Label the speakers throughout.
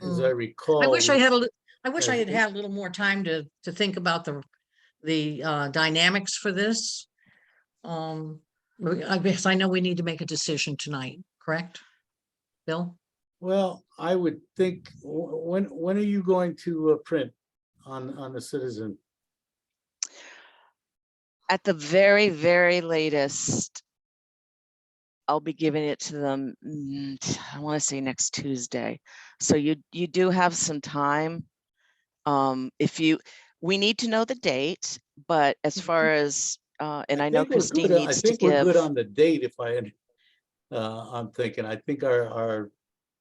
Speaker 1: Hmm.
Speaker 2: as I recall.
Speaker 3: I wish I had a, lit- I wish I
Speaker 2: Yeah,
Speaker 3: had
Speaker 2: it's-
Speaker 3: had a little more time to, to think about the, the uh, dynamics for this. Um, we- I guess I know we need to make a decision tonight, correct? Bill?
Speaker 2: Well, I would think, wh- when, when are you going to uh, print on, on the citizen?
Speaker 1: At the very, very latest, I'll be giving it to them, mm, t- I want to say next Tuesday. So you, you do have some time. Um, if you, we need to know the date, but as
Speaker 3: Mhm.
Speaker 1: far as, uh, and I know
Speaker 2: Mm-hmm. think we're
Speaker 1: Christine
Speaker 2: good-
Speaker 1: needs
Speaker 2: I
Speaker 1: to
Speaker 2: think we're good
Speaker 1: give.
Speaker 2: on the date if I, had- uh, I'm thinking, I think our, our,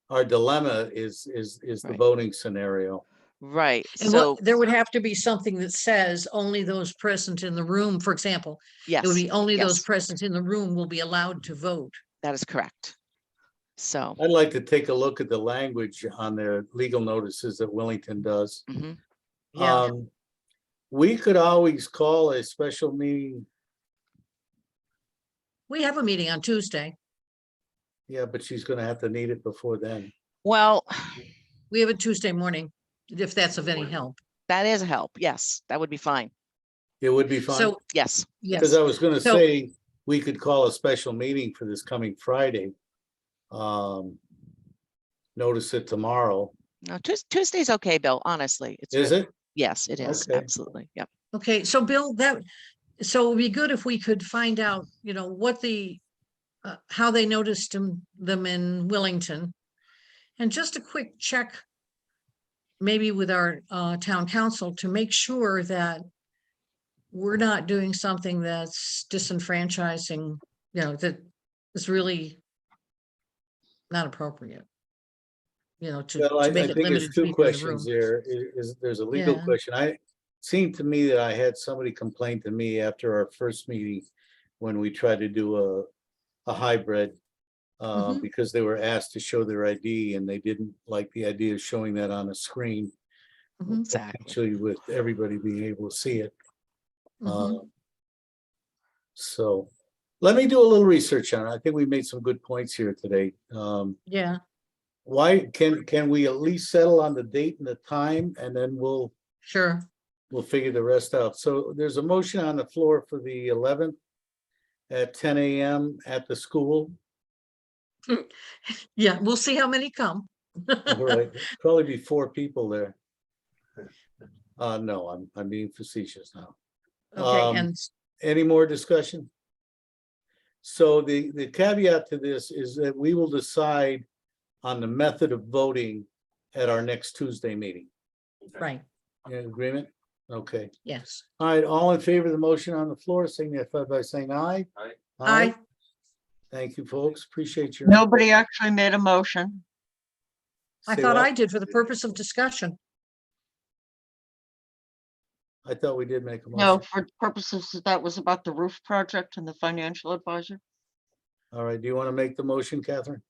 Speaker 2: our dilemma is, is, is the
Speaker 1: Right.
Speaker 2: voting scenario.
Speaker 1: Right,
Speaker 3: And what-
Speaker 1: so,
Speaker 3: There would have to be something that says only those present in the room, for example, it would
Speaker 1: yes,
Speaker 3: be only those
Speaker 1: yes.
Speaker 3: present in the room will be allowed to vote.
Speaker 1: that is correct. So,
Speaker 2: I'd like to take a look at the language on their legal notices that Wellington does.
Speaker 1: mhm,
Speaker 3: Yeah,
Speaker 2: Um, We could always call a special meeting,
Speaker 3: we have a meeting on Tuesday.
Speaker 2: yeah, but she's gonna have to need it before then.
Speaker 1: well,
Speaker 3: We have a Tuesday morning, if that's of any help.
Speaker 1: that is help, yes, that would be fine,
Speaker 2: It would be fine,
Speaker 3: So,
Speaker 1: yes,
Speaker 3: yes.
Speaker 2: because I was gonna
Speaker 3: So-
Speaker 2: say, we could call a special meeting for this coming Friday. Um, Notice it tomorrow,
Speaker 1: no, Tues- Tuesday's okay, Bill, honestly, it's
Speaker 2: is
Speaker 1: good.
Speaker 2: it?
Speaker 1: Yes, it is,
Speaker 2: Okay.
Speaker 1: absolutely, yep.
Speaker 3: Okay, so Bill, that, so it'd be good if we could find out, you know, what the, uh, how they noticed them, them in Willington. And just a quick check, maybe with our, uh, town council to make sure that we're not doing something that's disenfranchising, you know, that is really not appropriate. You know, to.
Speaker 2: Well, I
Speaker 3: to
Speaker 2: I
Speaker 3: make
Speaker 2: think
Speaker 3: it limited
Speaker 2: there's
Speaker 3: to
Speaker 2: two
Speaker 3: people in the
Speaker 2: questions
Speaker 3: room.
Speaker 2: there. I- Is, there's a legal
Speaker 3: Yeah.
Speaker 2: question. I, seemed to me that I had somebody complain to me after our first meeting when we tried to do a, a hybrid. Uh,
Speaker 3: Mhm.
Speaker 2: because they were asked to show their ID and they didn't like the idea of showing that on a screen,
Speaker 3: Mhm,
Speaker 1: Exactly.
Speaker 2: actually with everybody being able to see it.
Speaker 3: mhm.
Speaker 2: Um, So, let me do a little research on it. I think we made some good points here today. Um,
Speaker 3: Yeah,
Speaker 2: why, can, can we at least settle on the date and the time and then we'll,
Speaker 3: sure.
Speaker 2: we'll figure the rest out. So there's a motion on the floor for the eleventh at ten AM at the school.
Speaker 3: Yeah, we'll see how many come.
Speaker 2: Right, Probably be four people there. Uh, no, I'm, I'm being facetious now. Um,
Speaker 3: Okay, and s-
Speaker 2: Any more discussion? So the, the caveat to this is that we will decide on the method of voting at our next Tuesday meeting.
Speaker 3: right,
Speaker 2: You in agreement? Okay.
Speaker 3: yes.
Speaker 2: All right, all in favor of the motion on the floor, signify by saying aye.
Speaker 4: Aye.
Speaker 3: I,
Speaker 2: Thank you, folks. Appreciate your.
Speaker 5: Nobody actually made a motion.
Speaker 3: I
Speaker 2: Say
Speaker 3: thought
Speaker 2: what?
Speaker 3: I did for the purpose of discussion.
Speaker 2: I thought we did make a
Speaker 5: No,
Speaker 2: motion.
Speaker 5: for purposes, of- that was about the roof project and the financial advisor.
Speaker 2: All right, do you want to make the motion, Catherine?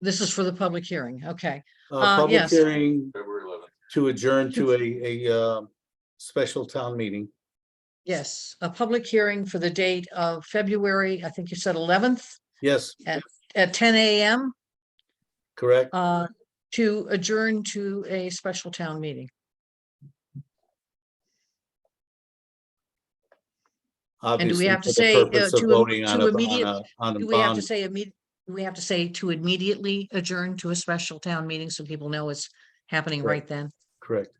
Speaker 3: This is for the public hearing. Okay,
Speaker 2: Uh,
Speaker 3: Uh,
Speaker 2: Public
Speaker 3: yes.
Speaker 2: hearing
Speaker 4: February eleventh.
Speaker 2: to adjourn to a, a uh, special town meeting.
Speaker 3: yes, a public hearing for the date of February, I think you said eleventh
Speaker 2: Yes,
Speaker 3: at ten AM
Speaker 2: correct?
Speaker 3: uh, to adjourn to a special town meeting. do
Speaker 2: Obviously,
Speaker 3: we have to
Speaker 2: for the
Speaker 3: say, uh,
Speaker 2: purpose of
Speaker 3: to im-
Speaker 2: voting on
Speaker 3: to
Speaker 2: a- on
Speaker 3: immediate-
Speaker 2: a- On a
Speaker 3: Do we have to
Speaker 2: bond.
Speaker 3: say immediate, we have to say to immediately adjourn to a special town meeting so people know it's happening
Speaker 2: Right.
Speaker 3: right then?
Speaker 2: Correct.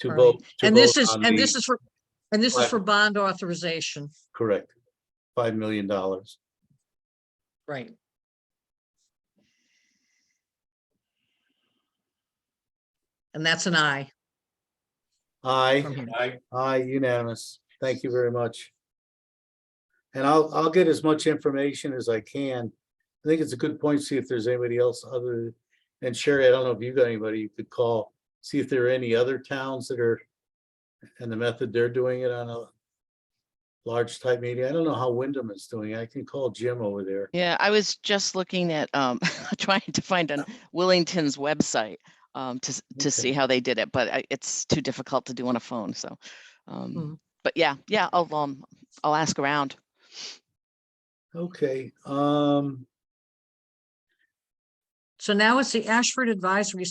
Speaker 2: To
Speaker 3: All right.
Speaker 2: vote. to
Speaker 3: And this
Speaker 2: vote
Speaker 3: is,
Speaker 2: on
Speaker 3: and
Speaker 2: the-
Speaker 3: this is for, and this is
Speaker 2: Right.
Speaker 3: for bond authorization,
Speaker 2: Correct. Five million dollars.
Speaker 3: right? And that's an aye. from
Speaker 2: Aye,
Speaker 3: here.
Speaker 4: I
Speaker 2: aye unanimous. Thank you very much. And I'll, I'll get as much information as I can. I think it's a good point, see if there's anybody else other, and Sherry, I don't know if you got anybody you could call, see if there are any other towns that are, and the method they're doing it on a large type meeting. I don't know how Wyndham is doing. it. I can call Jim over there.
Speaker 1: Yeah, I was just looking at, um, trying to find on Willington's website, um, to, s-
Speaker 2: Okay.
Speaker 1: to see how they did it, but I- it's too difficult to do on a phone, so.
Speaker 3: Mm.
Speaker 1: Um, but yeah, yeah, I'll, um, I'll ask around.
Speaker 2: Okay, um.
Speaker 3: So now it's the Ashford Advisory